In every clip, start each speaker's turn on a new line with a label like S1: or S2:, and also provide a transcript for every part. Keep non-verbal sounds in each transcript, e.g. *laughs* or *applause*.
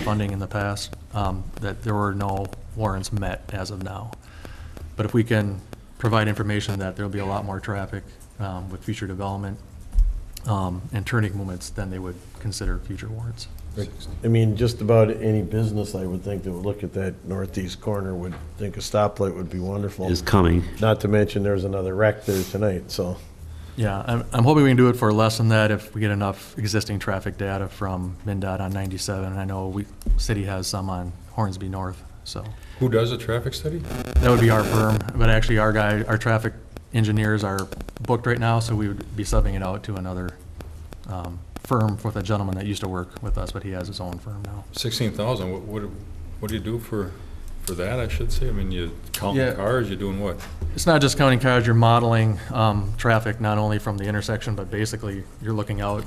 S1: funding in the past, um, that there were no warrants met as of now. But if we can provide information that there'll be a lot more traffic um, with future development um, and turning movements, then they would consider future warrants.
S2: I mean, just about any business, I would think, that would look at that northeast corner would think a stoplight would be wonderful.
S3: is coming.
S2: Not to mention, there's another wreck there tonight, so.
S1: Yeah, I'm, I'm hoping we can do it for less than that if we get enough existing traffic data from MinDOT on 97. And I know we, city has some on Hornsby North, so.
S4: Who does a traffic study?
S1: That would be our firm, but actually our guy, our traffic engineers are booked right now, so we would be subbing it out to another um, firm with a gentleman that used to work with us, but he has his own firm now.
S4: Sixteen thousand, what, what, what do you do for, for that, I should say? I mean, you
S1: Yeah.
S4: counting cars, you're doing what?
S1: It's not just counting cars, you're modeling um, traffic not only from the intersection, but basically you're looking out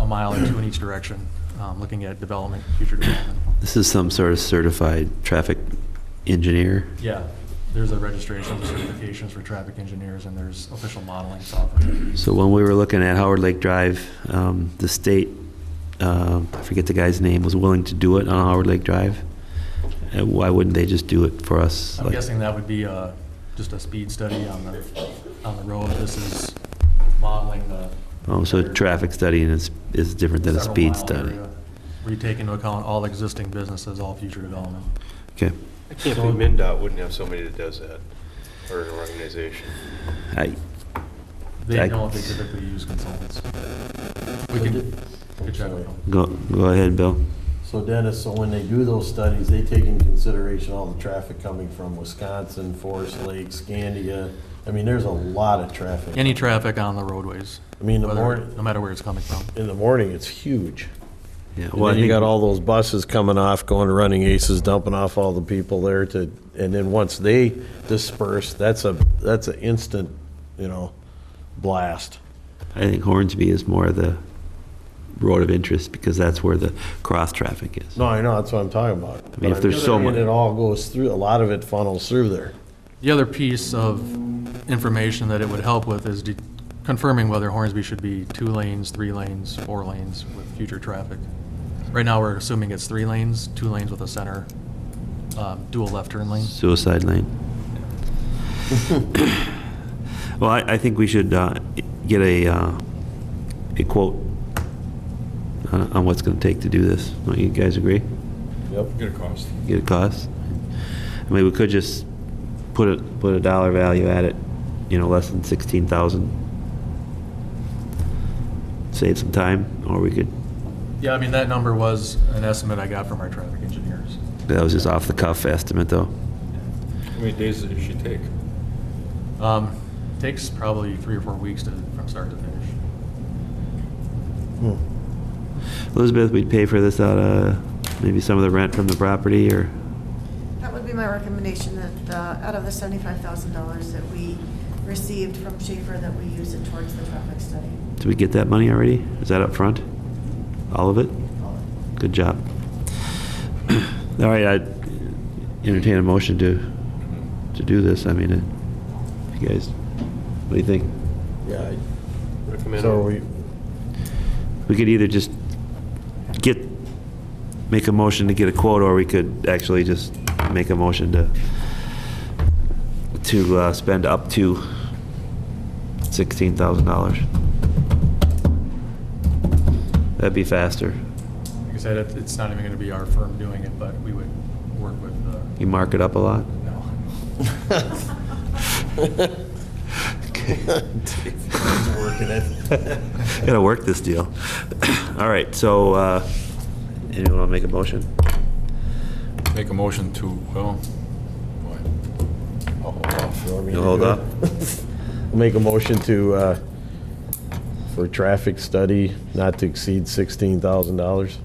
S1: a mile or two in each direction, um, looking at development, future development.
S3: This is some sort of certified traffic engineer.
S1: Yeah, there's a registration, certifications for traffic engineers, and there's official modeling software.
S3: So when we were looking at Howard Lake Drive, um, the state, uh, I forget the guy's name, was willing to do it on Howard Lake Drive. And why wouldn't they just do it for us?
S1: I'm
S3: Like-
S1: guessing that would be uh, just a speed study on the, on the road. This is modeling the.
S3: Oh, so traffic study and is, is different than a
S1: several
S3: speed
S1: mile
S3: study.
S1: area, Where you take into account all existing businesses, all future development.
S3: Okay.
S5: I can't believe MinDOT wouldn't have somebody that does that, or an organization.
S3: I,
S1: They
S3: I-
S1: know they typically use consultants. We can, we can check with them.
S3: go, go ahead, Bill.
S2: So Dennis, so when they do those studies, they take into consideration all the traffic coming from Wisconsin, Forest Lake, Scandia. I mean, there's a lot of traffic.
S1: Any traffic on the roadways,
S2: I mean, the
S1: whether,
S2: morning,
S1: no matter where it's coming from.
S2: in the morning, it's huge.
S3: Yeah,
S2: And
S3: well,
S2: then
S3: I
S2: you
S3: think-
S2: got all those buses coming off, going to Running Aces, dumping off all the people there to, and then once they disperse, that's a, that's an instant, you know, blast.
S3: I think Hornsby is more the road of interest because that's where the cross traffic is.
S2: No, I know, that's what I'm talking about.
S3: I mean, if there's so
S2: And
S3: mu-
S2: it all goes through, a lot of it funnels through there.
S1: The other piece of information that it would help with is de- confirming whether Hornsby should be two lanes, three lanes, four lanes with future traffic. Right now, we're assuming it's three lanes, two lanes with a center, um, dual left turn lane.
S3: Suicide lane. Well, I, I think we should uh, get a, uh, a quote uh, on on what's going to take to do this. Don't you guys agree?
S2: Yep.
S4: Gonna cost?
S3: Get a cost? I mean, we could just put a, put a dollar value at it, you know, less than 16,000. Save some time, or we could,
S1: Yeah, I mean, that number was an estimate I got from our traffic engineers.
S3: that was just off the cuff estimate, though.
S4: How many days does she take?
S1: Um, Takes probably three or four weeks to, from start to finish.
S2: Hmm,
S3: Elizabeth, we'd pay for this out of maybe some of the rent from the property, or,
S6: That would be my recommendation, that uh, out of the seventy-five thousand dollars that we received from Schaefer, that we use it towards the traffic study.
S3: did we get that money already? Is that up front? All of it? Good job. *clears throat* All right, I entertain a motion to, to do this. I mean, uh, you guys, what do you think?
S2: Yeah. I-
S5: Recommend.
S2: So we,
S3: We could either just get, make a motion to get a quote, or we could actually just make a motion to, to uh, spend up to $16,000. That'd be faster.
S1: Like I said, it- it's not even going to be our firm doing it, but we would work with the,
S3: You mark it up a lot?
S1: no.
S2: *laughs* working it.
S3: *laughs*
S2: *laughs*
S3: Gotta work this deal. *coughs* All right, so, uh, anyone wanna make a motion?
S4: Make a motion to, well, what?
S2: I'll hold off. You want me
S3: You'll
S2: to
S3: hold
S2: do it?
S3: up?
S2: I'll *laughs* Make a motion to, uh, for traffic study not to exceed $16,000,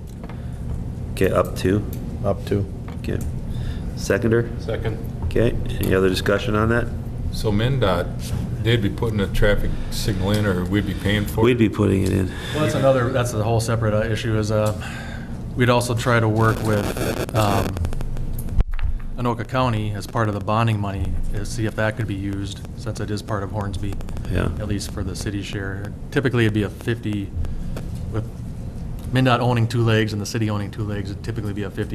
S3: Okay, up two,
S2: up to.
S3: okay. Seconder,
S5: Second.
S3: okay, any other discussion on that?
S4: So MinDOT, they'd be putting a traffic signal in, or we'd be paying for it?
S3: We'd be putting it in.
S1: Well, that's another, that's a whole separate uh, issue is, uh, we'd also try to work with, um, Anoka County as part of the bonding money, is see if that could be used, since it is part of Hornsby,
S3: Yeah,
S1: at least for the city share. Typically, it'd be a fifty, with MinDOT owning two legs and the city owning two legs, it'd typically be a fifty